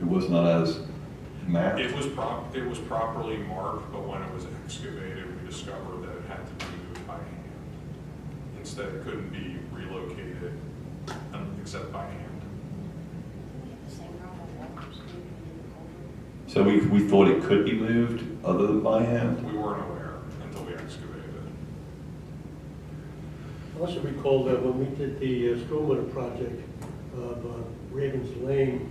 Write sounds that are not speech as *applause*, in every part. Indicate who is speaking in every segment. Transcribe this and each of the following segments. Speaker 1: It was not as mapped.
Speaker 2: It was prop, it was properly marked, but when it was excavated, we discovered that it had to be moved by hand. Instead, it couldn't be relocated um, except by hand.
Speaker 1: So we, we thought it could be moved other than by hand?
Speaker 2: We weren't aware until we excavated it.
Speaker 3: I also recall that when we did the uh, stormwater project of uh, Ravens Lane,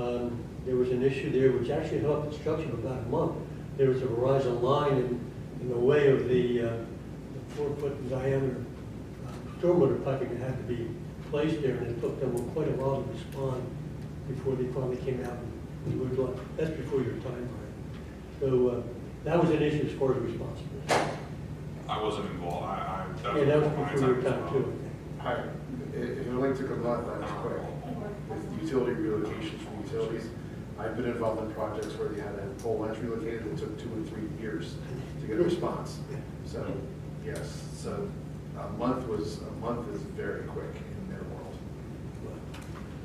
Speaker 3: um, there was an issue there which actually held up construction for about a month. There was a Verizon line in, in the way of the uh, the four-foot diameter uh, stormwater piping that had to be placed there, and it took them quite a while to respond before they finally came out and moved on. That's before your time, Brian. So uh, that was an issue as far as responsibility.
Speaker 2: I wasn't involved, I, I.
Speaker 3: Yeah, that was
Speaker 2: my
Speaker 3: before your
Speaker 2: as
Speaker 3: time
Speaker 2: well.
Speaker 3: too.
Speaker 4: Hi, if you like to come on, that's quick. With Utility relocations from utilities. I've been involved in projects where they had a pole lunch relocated that took two or three years to get a response. So, yes, so a month was, a month is very quick in their world.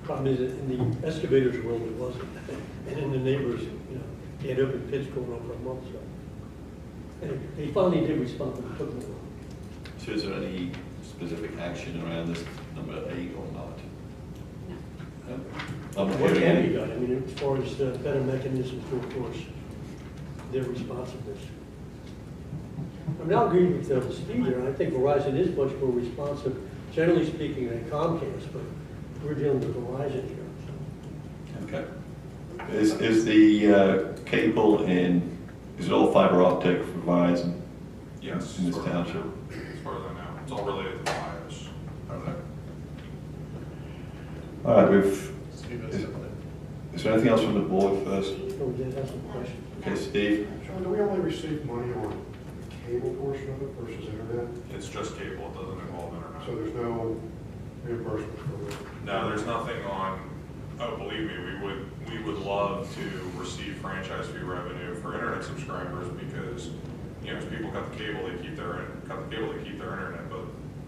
Speaker 3: Problem is, that in the excavators world, it wasn't, and in the neighbors, you know, they had open pits going on for a month, so. And they finally did respond, but it took them a while.
Speaker 1: So is there any specific action around this number eight or not? I'm not
Speaker 3: What
Speaker 1: hearing
Speaker 3: can be
Speaker 1: any.
Speaker 3: done, I mean, as far as uh, better mechanisms to enforce their responsiveness. I mean, I'll agree with uh, Steve there, I think Verizon is much more responsive, generally speaking, than Comcast, but we're dealing with Verizon here, so.
Speaker 1: Okay. Is, is the uh, cable in, is it all fiber optic for Verizon?
Speaker 2: Yes.
Speaker 1: In this
Speaker 2: as far as I
Speaker 1: township?
Speaker 2: know. As far as I know, it's all related to bios.
Speaker 1: Okay. All right, we've, is is there anything else from the board first?
Speaker 3: So that has some question.
Speaker 1: Okay, Steve?
Speaker 5: Sean, do we only receive money on the cable portion of it versus internet?
Speaker 2: It's just cable, it doesn't involve internet.
Speaker 5: So there's no reimbursement for it?
Speaker 2: No, there's nothing on, oh, believe me, we would, we would love to receive franchise fee revenue for internet subscribers because, you know, as people cut the cable, they keep their, cut the cable, they keep their internet, but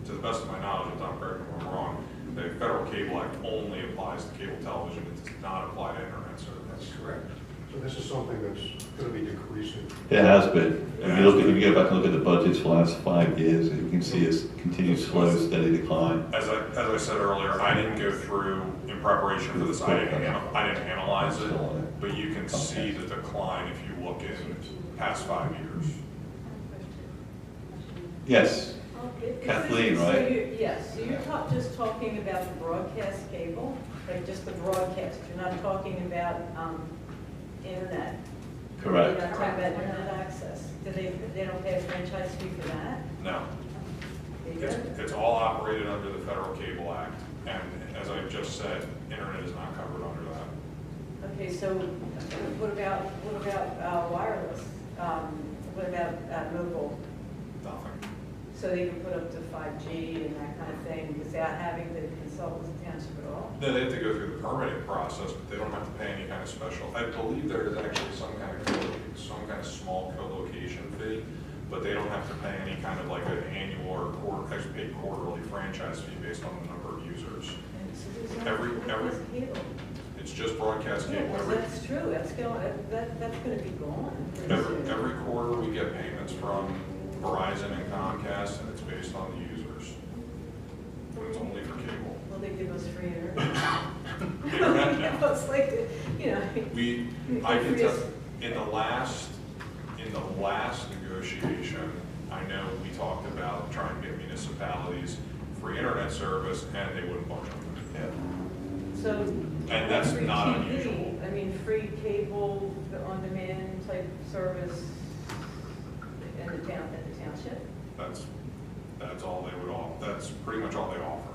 Speaker 2: to the best of my knowledge, and Tom, correct me if I'm wrong, the Federal Cable Act only applies to cable television, it does not apply to internet service.
Speaker 5: correct. So this is something that's going to be decreasing.
Speaker 1: There has been. If you look, if you go back and look at the budgets for the last five years, you can see it's continued slow, steady decline.
Speaker 2: As I, as I said earlier, I didn't go through, in preparation for this, I didn't, ana- I didn't analyze it, but you can see the decline if you look in past five years.
Speaker 1: Yes,
Speaker 6: Okay.
Speaker 1: Kathleen,
Speaker 6: So
Speaker 1: right?
Speaker 6: you- Yes, so you're ta- just talking about the broadcast cable, like just the broadcast, you're not talking about um, internet. You're
Speaker 1: correct.
Speaker 6: not talking about internet access. Do they, they don't pay a franchise fee for that?
Speaker 2: No,
Speaker 6: They
Speaker 2: It's,
Speaker 6: don't?
Speaker 2: it's all operated under the Federal Cable Act, and as I just said, internet is not covered under that.
Speaker 6: Okay, so what about, what about uh, wireless? Um, What about uh, mobile?
Speaker 2: Nothing.
Speaker 6: So they can put up to 5G and that kind of thing without having to consult with the township at all?
Speaker 2: Then they have to go through the permitting process, but they don't have to pay any kind of special. I believe there is actually some kind of, co- some kind of small co-location fee, but they don't have to pay any kind of like an annual or quarter, actually paid quarterly franchise fee based on the number of users.
Speaker 6: And so there's no-
Speaker 2: Every- every-
Speaker 6: there's cable.
Speaker 2: It's just broadcast
Speaker 6: Yeah,
Speaker 2: cable.
Speaker 6: well,
Speaker 2: Every,
Speaker 6: that's true, that's going, that, that's gonna be gone pretty soon.
Speaker 2: every, every quarter, we get payments from Verizon and Comcast, and it's based on the users. But it's only for cable.
Speaker 6: Well, they give us
Speaker 2: *laughs*
Speaker 6: free *laughs* internet.
Speaker 2: Internet now.
Speaker 6: It's like, you know,
Speaker 2: We, I can tell, in the last, in the last negotiation, I know we talked about trying to get municipalities free internet service, and they wouldn't budge on
Speaker 1: Yeah.
Speaker 6: so.
Speaker 2: And that's
Speaker 6: free
Speaker 2: not
Speaker 6: TV,
Speaker 2: unusual.
Speaker 6: I mean, free cable, the on-demand type service in the town, in the township.
Speaker 2: it. That's, that's all they would all, that's pretty much all they offer.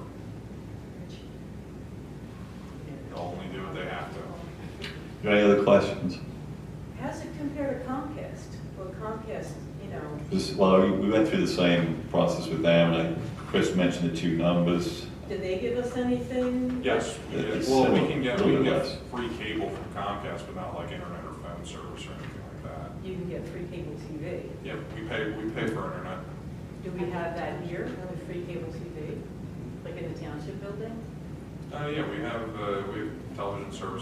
Speaker 2: They'll only do what they have to.
Speaker 1: Any other questions?
Speaker 6: How's it compare to Comcast? Well, Comcast, you know,
Speaker 1: This- Well, we- we went through the same process with them, and I- Chris mentioned the two numbers.
Speaker 6: do they give us anything?
Speaker 2: Yes, we get,
Speaker 1: It's
Speaker 2: well, we
Speaker 1: similar,
Speaker 2: can get,
Speaker 1: a
Speaker 2: we
Speaker 1: little
Speaker 2: can
Speaker 1: bit
Speaker 2: get
Speaker 1: less.
Speaker 2: free cable from Comcast, but not like internet or phone service or anything like that.
Speaker 6: You can get free cable TV.
Speaker 2: Yeah, we pay, we pay for internet.
Speaker 6: Do we have that here, with free cable TV, like in the township building?
Speaker 2: Uh, yeah, we have, uh, we have television service